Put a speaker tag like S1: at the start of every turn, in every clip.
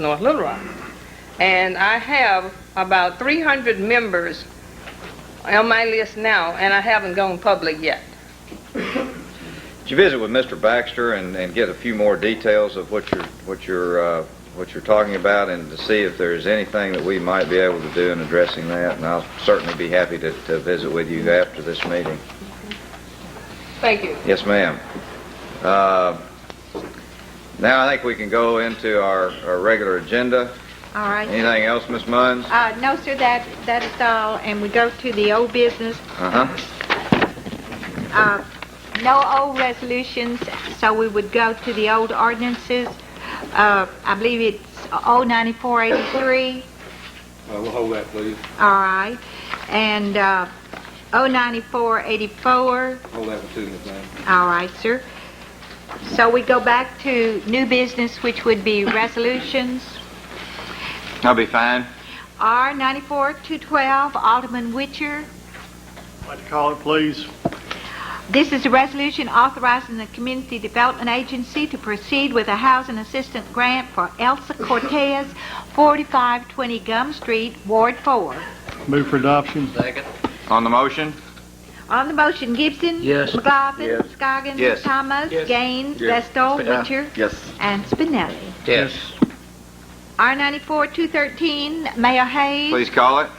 S1: North Little Rock. And I have about 300 members on my list now, and I haven't gone public yet.
S2: Did you visit with Mr. Baxter and, and get a few more details of what you're what you're uh, what you're talking about, and to see if there's anything that we might be able to do in addressing that? And I'll certainly be happy to, to visit with you after this meeting.
S1: Thank you.
S2: Yes, ma'am. Uh, now I think we can go into our, our regular agenda.
S3: All right.
S2: Anything else, Miss Munns?
S3: Uh, no, sir, that, that is all, and we go to the old business.
S2: Uh huh.
S3: Uh, no old resolutions, so we would go to the old ordinances. Uh, I believe it's 09483.
S4: Uh, We'll hold that, please.
S3: All right. And uh, 09484.
S4: Hold that one too, Ms. Lane.
S3: All right, sir. So we go back to new business, which would be resolutions.
S2: I'll be fine.
S3: R 94-212, Alderman Witcher.
S5: I'd like to call it, please.
S3: This is a resolution authorizing the Community Development Agency to proceed with a housing assistance grant for Elsa Cortez, 4520 Gum Street, Ward 4.
S5: Move for adoption.
S2: On the motion?
S3: On the motion, Gibson.
S6: Yes.
S3: McGoffin. Scoggins.
S2: Yes.
S3: Thomas. Gaines. Vestal. Witcher.
S2: Yes.
S3: And Spinelli.
S6: Yes.
S3: R94-213, Mayor Hayes.
S2: Please call it.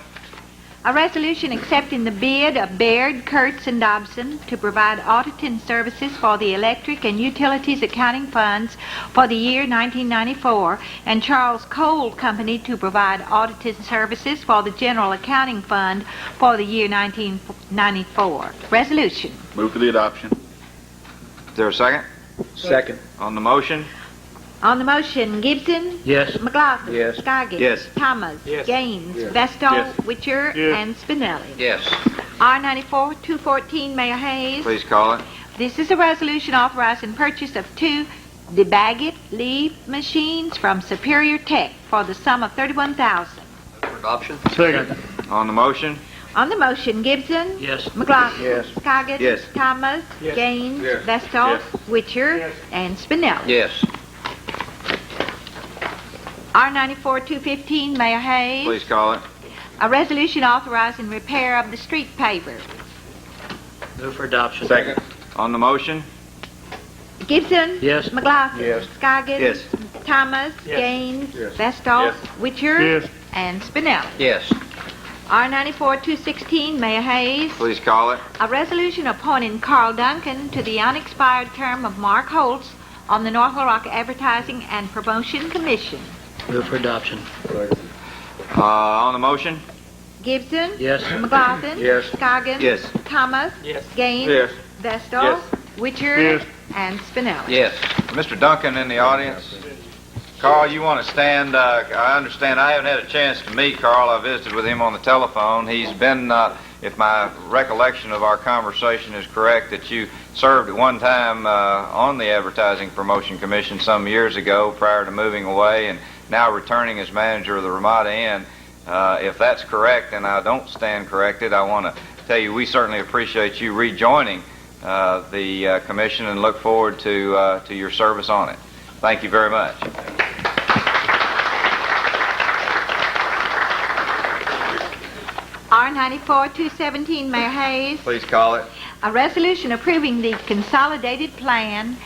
S3: A resolution accepting the bid of Baird, Kurtz, and Dobson to provide auditing services for the electric and utilities accounting funds for the year 1994, and Charles Cole Company to provide auditing services for the general accounting fund for the year 1994. Resolution.
S7: Move for the adoption.
S2: Is there a second?
S6: Second.
S2: On the motion?
S3: On the motion, Gibson.
S6: Yes.
S3: McLaughlin.
S6: Yes.
S3: Scoggins.
S2: Yes.
S3: Thomas. Gaines. Vestal. Witcher.
S5: Yes.
S3: And Spinelli.
S2: Yes.
S3: R94-214, Mayor Hayes.
S2: Please call it.
S3: This is a resolution authorizing purchase of two DeBaggett leaf machines from Superior Tech for the sum of 31000
S5: Second.
S2: On the motion?
S3: On the motion, Gibson.
S6: Yes.
S3: McLaughlin.
S6: Yes.
S3: Scoggins.
S2: Yes.
S3: Thomas. Gaines. Vestal. Witcher. And Spinelli.
S2: Yes.
S3: R94-215, Mayor Hayes.
S2: Please call it.
S3: A resolution authorizing repair of the street paver.
S6: Move for adoption.
S2: On the motion?
S3: Gibson.
S6: Yes.
S3: McLaughlin.
S6: Yes.
S3: Scoggins.
S2: Yes.
S3: Thomas.
S6: Yes.
S3: Gaines.
S4: Yes.
S3: Vestal.
S7: Yes.
S3: Witcher.
S5: Yes.
S3: And Spinelli.
S2: Yes.
S3: R94-216, Mayor Hayes.
S2: Please call it.
S3: A resolution appointing Carl Duncan to the unexpired term of Mark Holtz on the North Little Rock Advertising and Promotion Commission.
S6: Move for adoption.
S2: Uh, on the motion?
S3: Gibson.
S6: Yes.
S3: McLaughlin.
S6: Yes.
S3: Scoggins.
S2: Yes.
S3: Thomas.
S6: Yes.
S3: Gaines.
S2: Yes.
S3: Vestal.
S2: Yes.
S3: Witcher.
S5: Yes.
S3: And Spinelli.
S2: Yes. Mr. Duncan in the audience. Carl, you want to stand? Uh, I understand. I haven't had a chance to meet Carl. I visited with him on the telephone. He's been, uh, if my recollection of our conversation is correct, that you served at one time uh, on the Advertising Promotion Commission some years ago prior to moving away and now returning as manager of the Ramada Inn. Uh, if that's correct and I don't stand corrected, I want to tell you we certainly appreciate you rejoining uh, the uh, commission and look forward to, uh, to your service on it. Thank you very much.
S3: R94-217, Mayor Hayes.
S2: Please call it.
S3: A resolution approving the consolidated plan,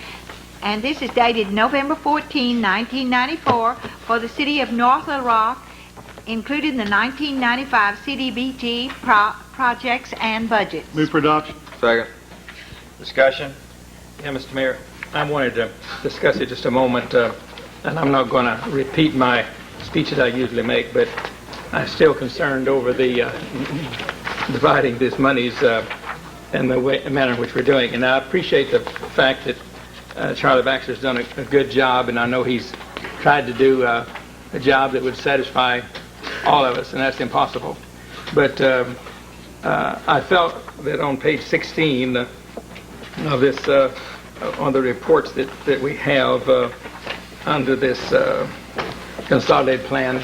S3: and this is dated November 14, 1994, for the city of North Little Rock, including the 1995 CDBG pro- projects and budgets.
S5: Move for adoption.
S2: Second. Discussion?
S8: Yeah, Mr. Mayor, I wanted to discuss it just a moment, uh, and I'm not going to repeat my speech that I usually make, but I'm still concerned over the uh, dividing these monies uh, and the way- manner in which we're doing. And I appreciate the fact that uh, Charlie Baxter's done a a good job, and I know he's tried to do uh, a job that would satisfy all of us, and that's impossible. But um, uh, I felt that on page 16, uh, of this, uh, on the reports that, that we have uh, under this uh, consolidated plan,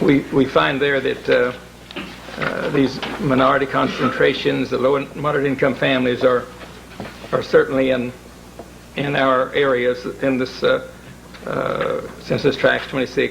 S8: we, we find there that uh, uh, these minority concentrations, the low and moderate income families are, are certainly in, in our areas in this uh, uh, Census Tracts 26